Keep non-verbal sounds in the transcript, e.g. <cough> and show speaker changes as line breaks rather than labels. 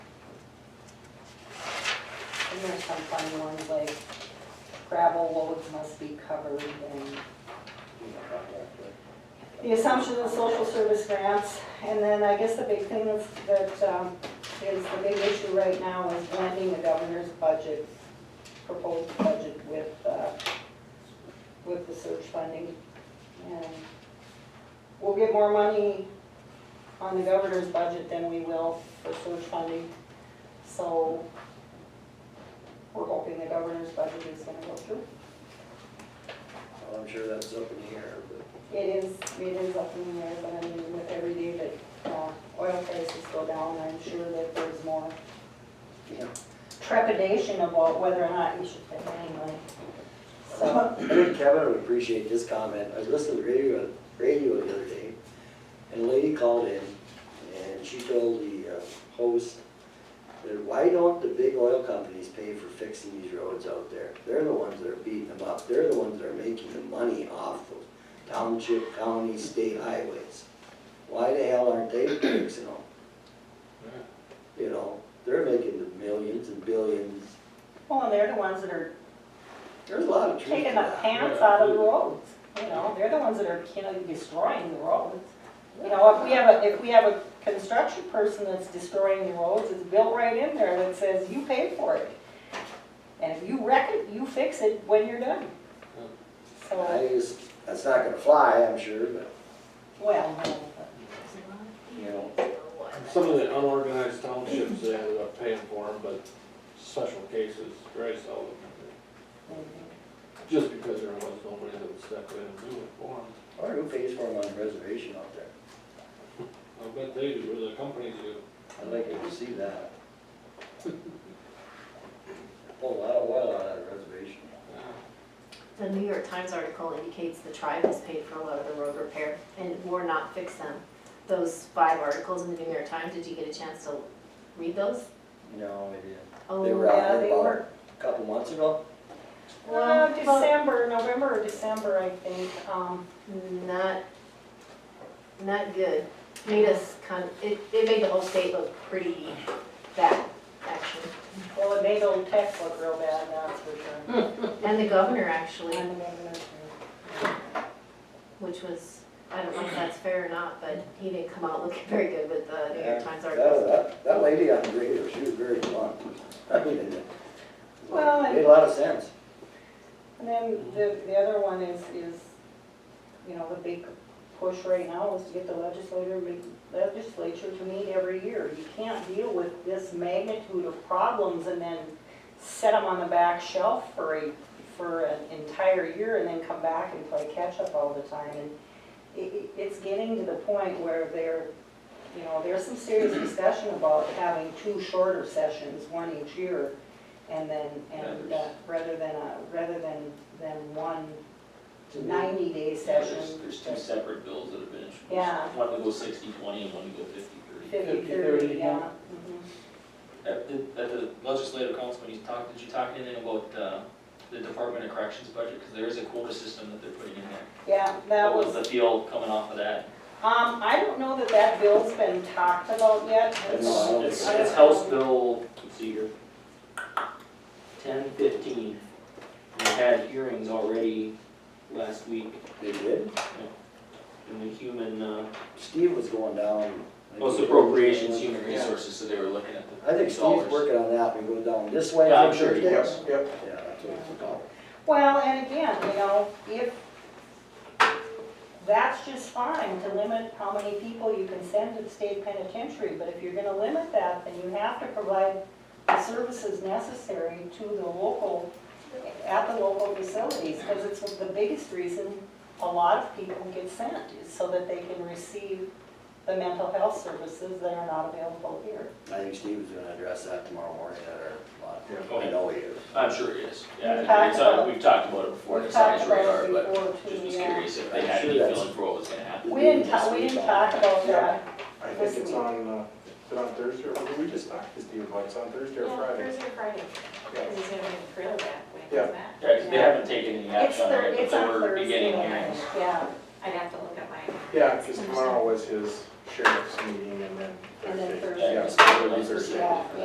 there's some funny ones like gravel roads must be covered and the assumption of social service grants, and then I guess the big thing that's, that um, is the big issue right now is blending the governor's budget, proposed budget with, uh, with the search funding. And we'll get more money on the governor's budget than we will for search funding, so we're hoping the governor's budget is gonna go through.
Well, I'm sure that's up in the air,
It is, it is up in the air, but I mean, with every day that uh, oil prices go down, I'm sure that there's more
but, yeah.
trepidation about whether or not you should pay anyway. So,
I think <clears throat> Kevin would appreciate this comment. I was listening to the radio, radio the other day, and a lady called in, and she told the uh, host that why don't the big oil companies pay for fixing these roads out there? They're the ones that are beating them up. They're the ones that are making the money off of township, county, state highways. Why the hell aren't they fixing them? You know, they're making the millions and billions.
well, and they're the ones that are
There's a lot of truth to
taking the
that.
pants out of the roads, you know, they're the ones that are, you know, destroying the roads. You know, if we have a, if we have a construction person that's destroying the roads, it's built right in there that says, you pay for it. And if you wreck it, you fix it when you're done. So,
I just, that's not gonna fly, I'm sure, but,
well, no,
you know,
Some of the unorganized townships, they ended up paying for them, but special cases, very seldom. Just because there was nobody that would step in and do it for them.
I wonder who pays for them on the reservation out there?
I bet they do, or the companies do.
I'd like to see that. Pull a lot of oil out of that reservation.
The New York Times article indicates the tribe has paid for a lot of the road repair and more not fix them. Those five articles in the New York Times, did you get a chance to read those?
No, I didn't.
Oh,
They were out
yeah,
there
they
about
were.
a couple months ago.
Uh,
Well,
December, November or December, I think, um,
Not, not good. Made us kind, it, it made the whole state look pretty bad, actually.
well, it made old tech look real bad, that's for sure.
And the governor, actually,
And the governor, too.
which was, I don't know if that's fair or not, but he didn't come out looking <laughs> very good with the New York Times
That-
article.
That, that lady on the radio, she was very blunt. <laughs> I mean, it-
Well, I-
Made a lot of sense.
And then the, the other one is, is, you know, the big push right now is to get the legislator, legislature to meet every year. You can't deal with this magnitude of problems and then set them on the back shelf for a, for an entire year and then come back and play catch-up all the time. And it, it- it's getting to the point where there, you know, there's some serious discussion about having two shorter sessions, one each year, and then, and, uh, rather than, a- rather than, than one ninety-day
Yeah,
session.
There's, there's two separate bills that have been introduced.
Yeah.
One to go sixty, twenty, and one to go fifty, thirty.
Fifty, thirty, yeah. mhm.
At the, at the legislative council, when you talked, did you talk anything about, uh, the Department of Corrections budget? Because there is a quota system that they're putting in there.
Yeah, that
What was
was, um,
the feel coming off of that?
I don't know that that bill's been talked about yet.
I know, I don't
It's,
think-
it's House Bill, let's see here, ten fifteen. We had hearings already last week
They did.
in the human, uh,
Steve was going down.
well, it's appropriations, human resources, so they were looking at the
I think Steve's
dollars.
working on that, we go down this way.
Yeah, I'm sure he
Yeah,
is.
Yeah, that's what it's called.
Well, and again, you know, if, that's just fine to limit how many people you can send to the state penitentiary, but if you're gonna limit that, then you have to provide the services necessary to the local, at the local facilities, because it's the biggest reason a lot of people get sent, is so that they can receive the mental health services that are not available here.
I think Steve was gonna address that tomorrow morning at our lot.
Yeah.
I know he is.
I'm sure it is.
We've
Yeah,
talked
it's,
about-
uh, we've talked about it before,
We've
it's on his
talked about
radar,
it
but
before,
just was
too, yeah.
curious if they
I'm
had
sure
any
that's-
feeling for what was gonna happen.
We didn't talk, we didn't talk about that.
I think it's on, uh, is it on Thursday, or did we just talked to Steve about it? It's on Thursday or Friday.
Thursday or Friday,
Yeah.
because he's gonna make the grill back when he
Yeah.
comes back.
Yeah, 'cause they haven't taken any
It's
action on
Thur-
it, but
it's
they
on
were beginning
Thursday
hearings.
night, Yeah.
I'd have to look at my.
Yeah, because tomorrow was his sheriff's meeting and then
And then
Thursday.
Thursday.
Yeah,
Yeah,
it's
so
really
Thursday.
Yeah.